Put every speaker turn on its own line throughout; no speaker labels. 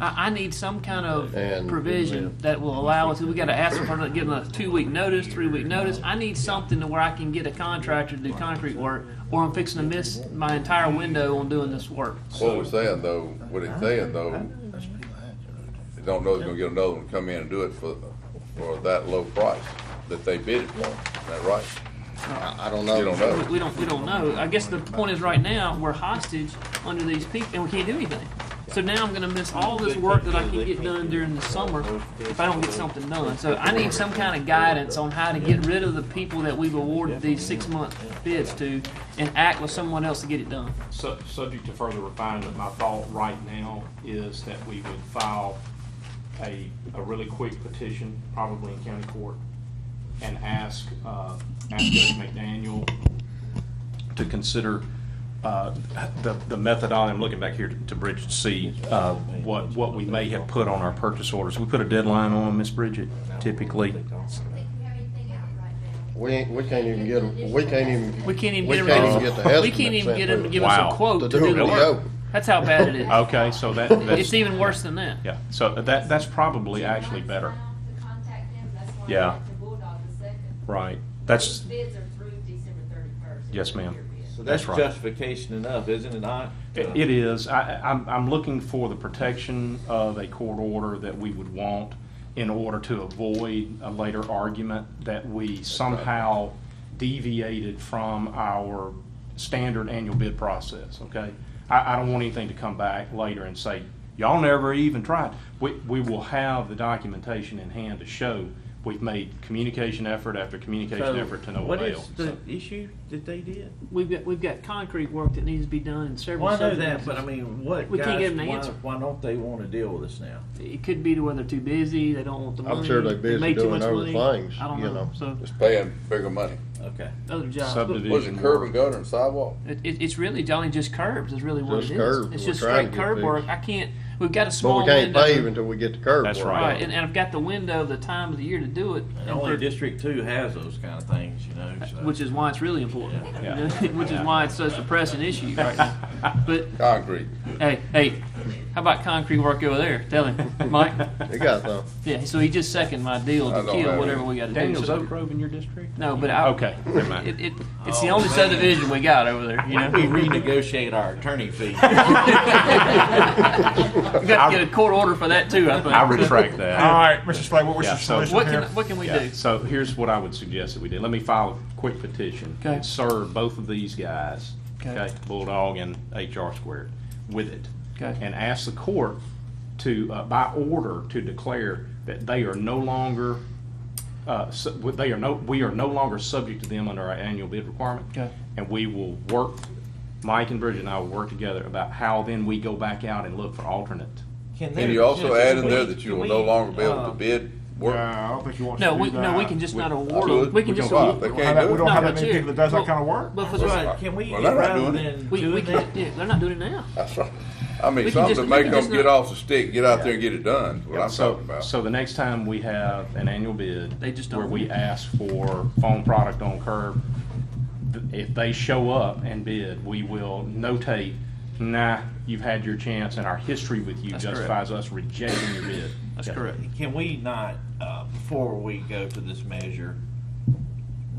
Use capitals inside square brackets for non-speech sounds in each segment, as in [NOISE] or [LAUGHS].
I, I need some kind of
And-
provision that will allow us, we gotta ask for, it, give them a two-week notice, three-week notice. I need something to where I can get a contractor to do concrete work, or I'm fixing to miss my entire window on doing this work.
What we're saying though, what he's saying though, they don't know they're gonna get another one, to come in and do it for, for that low price that they bid it for, is that right?
I I don't
You don't
know.
know.
We, we don't, we don't know. I guess the point is, right now, we're hostage under these people, and we can't do anything. So now I'm gonna miss all this work that I can get done during the summer if I don't get something done. So I need some kind of guidance on how to get rid of the people that we've awarded these six-month bids to and act with someone else to get it done.
Su- Subject to further refinement, my thought right now is that we would file a, a really quick petition, probably in county court, and ask, uh, ask Judge McDaniel to consider, uh, the, the methodology, I'm looking back here to Bridget, to see, uh, what, what we may have put on our purchase orders. We put a deadline on them, Ms. Bridget, typically.
think we have anything out right now.
We ain't, we can't even get, 'em- we can't even.
We can't even
We
get
can't
them,
even get the
we
estimate
can't even
sent
get them to
through.
give us
Wow.
a quote
To
to
do
do
the
the
work.
work. That's how bad it is.
Okay, so that,
It's
that's,
even worse than that.
yeah, so that, that's probably actually better.
To contact them, that's why
Yeah.
I went to Bulldog the second.
Right, that's,
Those Bids are through December thirty-first.
Yes, ma'am.
So
That's
that's
right.
justification enough, isn't it not?
It it is. I, I- I'm, I'm looking for the protection of a court order that we would want in order to avoid a later argument that we somehow deviated from our standard annual bid process, okay? I, I don't want anything to come back later and say, y'all never even tried. We, we will have the documentation in hand to show we've made communication effort after communication effort to no
What
avail.
is the issue that they did?
We've got, we've got concrete work that needs to be done in several.
Well, I know that,
subdivisions.
but I mean, what,
We can't
guys,
get an
why,
answer.
why don't they wanna deal with us now?
It could be to where they're too busy, they don't want the money.
I'm sure they're busy
made too
doing
much
other
money.
things,
I don't
you know.
So,
It's paying bigger money.
Okay.
other
uh,
jobs.
Subdivision.
Was it curb and gutter and sidewalk?
But It, it, it's really, Johnny, just curbs is really what
Just
it is.
curbs.
It's
We're
just
trying
straight
to get
curb work. I can't, we've got a
But
small
we can't
window.
pave until we get the curb.
That's
worked
right.
Right, and, and I've got the window, the time of the year to do it.
And
and for-
only District Two has those kinda things, you know, so.
Which is why it's really important. [LAUGHS]
Yeah.
Which is why it's such a pressing issue right now.
[LAUGHS]
But,
Concrete.
hey, hey, how about concrete work over there? Tell him,
[LAUGHS]
Mike.
You got them.
Yeah, so he just seconded my deal
I
to
don't
kill
have
whatever
it.
we gotta do.
Daniel's
So-
Oak Grove in your district?
No, but I.
Okay, never mind.
It, it, it's the
Oh,
only
man.
subdivision we got over there, you
Why
know?
don't [LAUGHS] we renegotiate our attorney [LAUGHS] fee?
We got to get a court order for that too, I think.
I retract that.
All right, Mr. Slay, what was
Yeah,
your
so-
solution
What
here?
can, what can we
Yeah,
do?
So here's what I would suggest that we do. Let me file a quick petition.
Okay.
and Serve both of these guys,
Okay.
okay, Bulldog and HR squared, with it.
Okay.
And ask the court to, uh, by order, to declare that they are no longer, uh, su- they are no, we are no longer subject to them under our annual bid requirement.
Okay.
And we will work, Mike and Bridget and I will work together about how then we go back out and look for alternate.
Can they-
And you also
can
add in there
we-
that you will
can
no
we,
longer be able
uh,
to bid work.
I don't think you want
No, we, no, we can just not award
do
them.
it.
We can
We
just.
can
award-
buy it. They
We
can't
don't
do
have, we
it.
don't
No,
have
but
that many
you-
people that does
well-
that kind of work.
But for
That's
what,
right. Can we,
Well, they're not
rather
doing it.
than
we, we
doing
can,
that,
yeah, they're not doing it now.
That's right. I mean,
We can
something
just-
to
we
make
can
them
just
get
not-
off the stick, get out there and get it done, is what I'm
So-
talking about.
So the next time we have an annual bid.
They just
Where
don't.
we ask for foam product on curb, th- if they show up and bid, we will notate, nah, you've had your chance and our history with you
That's correct.
justifies us rejecting your bid.
That's
Yeah.
correct.
Can we not, uh, before we go to this measure,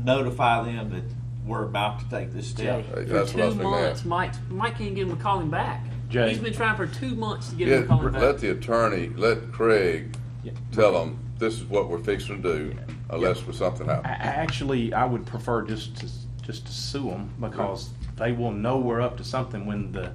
notify them that we're about to take this step?
Hey,
For
That's what I
two
was thinking.
months,
that.
Mike, Mike can't get him to call him back.
Jay.
He's been trying for two months to get him to
Get,
call him
let
back.
the attorney, let Craig
Yeah.
tell them, this is what we're fixing to do unless for something
I- I
happens.
Actually, I would prefer just to, just to sue them because they will know we're up to something when the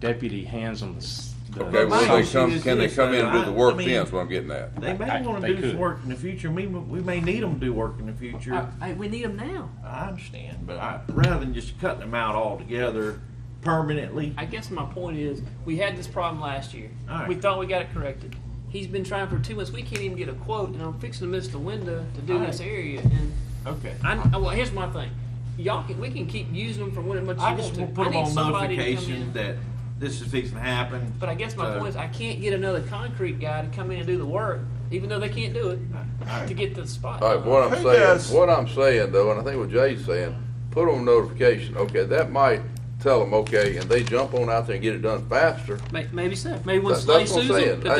deputy hands them the s- the.
my
Okay, well, they
issue
come,
is
can they
this,
come in and
though,
do
uh,
the
I- I
work
mean-
then, is what I'm getting at.
They
I-
may want
they
to do some
could.
work in the future, we, may- we may need them to do work in the future.
I- I- we need him now.
I understand, but I, rather than just cutting them out altogether permanently,
I guess my point is, we had this problem last year.
All right.
We thought we got it corrected. He's been trying for two months. We can't even get a quote, and I'm fixing to miss the window to do
All
this
right.
area. And
okay.
I, I- well, here's my thing. Y'all can, we can keep using them for when much
I
you
just
want
will
to.
put
I
them
need
on
somebody to come
notification
in.
that this is fixing to happen.
But I guess my
So-
point is, I can't get another concrete guy to come in and do the work, even though they can't do it, to get the spot.
All right,
done.
what I'm
Who
saying,
does-
what I'm saying though, and I think what Jay's saying, put on notification. Okay, that might
tell them, okay, and they jump on out there and get it done faster,
May- Maybe so. Maybe
That-
when
that's
Slay
what I'm
sues them,
saying.
if